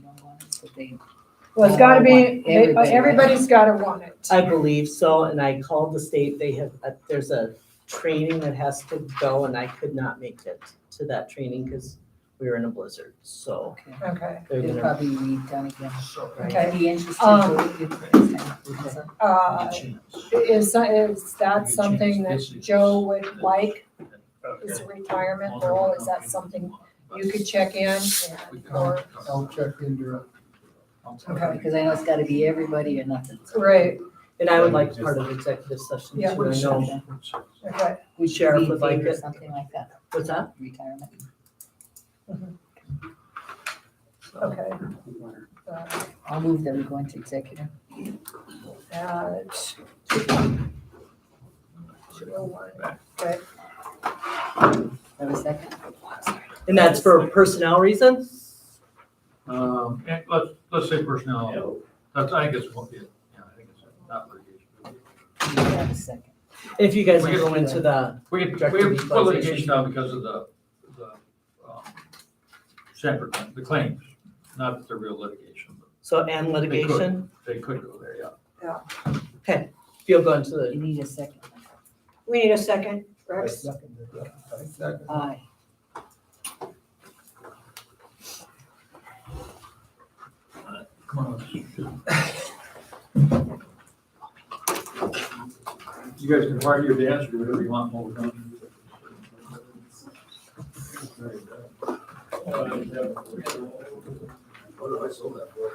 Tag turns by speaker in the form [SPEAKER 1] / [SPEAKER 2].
[SPEAKER 1] that they,
[SPEAKER 2] Well, it's gotta be, uh,
[SPEAKER 1] Everybody wants it.
[SPEAKER 2] everybody's gotta want it.
[SPEAKER 3] I believe so, and I called the state, they have, uh, there's a training that has to go, and I could not make it to that training because we were in a blizzard, so.
[SPEAKER 1] okay,
[SPEAKER 2] Okay,
[SPEAKER 3] they're
[SPEAKER 1] it'll
[SPEAKER 3] gonna-
[SPEAKER 1] probably be done again.
[SPEAKER 3] right.
[SPEAKER 2] Okay.
[SPEAKER 1] It'd Be interesting.
[SPEAKER 2] Um,
[SPEAKER 1] to do it next time.
[SPEAKER 3] Okay.
[SPEAKER 2] uh, is, is that something that Joe would like, is a retirement role, is that something you could check in? and- Or,
[SPEAKER 4] I'll check into it.
[SPEAKER 2] Okay.
[SPEAKER 1] Because I know it's gotta be everybody or nothing.
[SPEAKER 2] right,
[SPEAKER 3] And I would like part of executive session
[SPEAKER 2] Yeah.
[SPEAKER 3] too, I know,
[SPEAKER 2] okay,
[SPEAKER 1] Would you
[SPEAKER 3] Sheriff
[SPEAKER 1] be in
[SPEAKER 3] would like
[SPEAKER 1] favor of
[SPEAKER 3] it.
[SPEAKER 1] Something like that,
[SPEAKER 3] what's that?
[SPEAKER 1] retirement.
[SPEAKER 3] So,
[SPEAKER 2] okay. Uh,
[SPEAKER 1] I'll move that we go into executive.
[SPEAKER 2] Uh, At two oh one,
[SPEAKER 1] Have a second?
[SPEAKER 3] And that's for personnel reasons?
[SPEAKER 4] Um,
[SPEAKER 5] Yeah, let's, let's say personnel, that's, I guess, what, yeah, yeah, I think it's not litigation.
[SPEAKER 1] Have a second.
[SPEAKER 3] If you guys are going to the,
[SPEAKER 5] We, we
[SPEAKER 3] Objective
[SPEAKER 5] put litigation down because of the, the, um, separate, the claims, not the real litigation, but
[SPEAKER 3] so and litigation,
[SPEAKER 5] they could go there, yeah.
[SPEAKER 3] if you'll go into the,
[SPEAKER 1] You need a second.
[SPEAKER 2] we need a second, Rex,
[SPEAKER 4] I'll
[SPEAKER 1] Aye.
[SPEAKER 5] Come on, let's- You guys can party your dance, do whatever you want, while we're done. Uh, yeah. What did I sell that for?